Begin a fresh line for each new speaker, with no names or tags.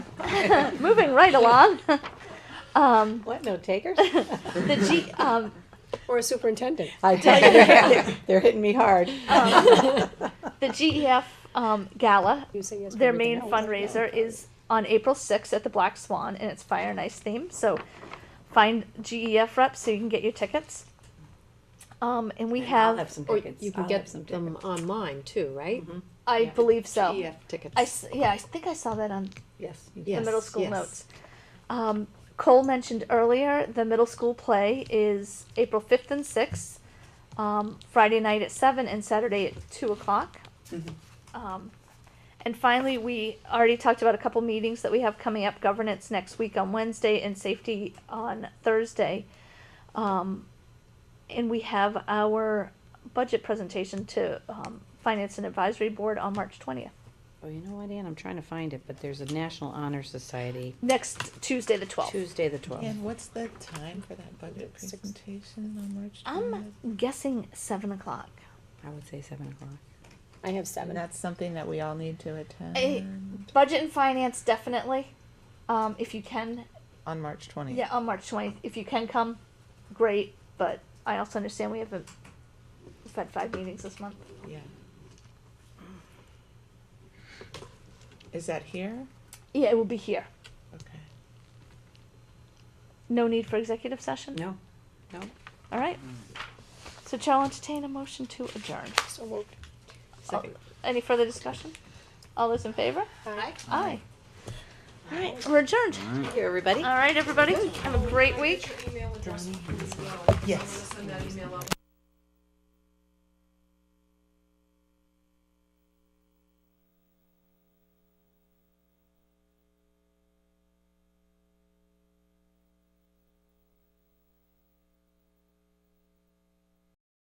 Moving right along. Um,
What, no takers?
the G, um,
Or a superintendent? I tell you, they're- they're hitting me hard.
the GEF, um, gala,
You say yes for
their
everything
main
else.
fundraiser is on April sixth at the Black Swan and it's Fire and Ice theme, so find GEF reps so you can get your tickets. Um, and we
I'll
have,
have some
Or
tickets.
you
I'll
can
have
get
some
them
tickets.
online too, right?
Mm-hmm.
I
yeah.
believe so.
EF tickets.
I, s- yeah, I think I saw that on
Yes. you
the
Yeah.
can.
middle
Yes,
school
yes.
notes. Um, Cole mentioned earlier the middle school play is April 5th and 6th, um, Friday night at 7 and Saturday at 2 o'clock.
Mhm.
Mm-hmm.
Um, and finally, we already talked about a couple meetings that we have coming up governance next week on Wednesday and safety on Thursday. Um, and we have our budget presentation to um, Finance and Advisory Board on March 20th.
Oh, you know what, Ann, I'm trying to find it, but there's a National Honor Society,
Next Tuesday, the 12th.
Tuesday the twelfth.
And what's the time for that budget presentation on March
I'm
20th?
guessing seven o'clock.
I would say seven o'clock.
I have
And
seven.
that's something that we all need to attend
Eh, Budget and finance, definitely. Um, if you can,
on March 20th.
yeah, on March twentieth, if you can come, great, but I also understand we haven't, we've had five meetings this month.
Yeah. Is that here?
Yeah, it will be here.
Okay.
No need for executive session?
No, no.
All right. So Chair will entertain a motion to adjourn.
So moved.
All- Any further discussion? All those in favor?
Aye.
Aye. All right, we're adjourned.
Thank you, everybody.
All right, everybody, have a great week.
Yes.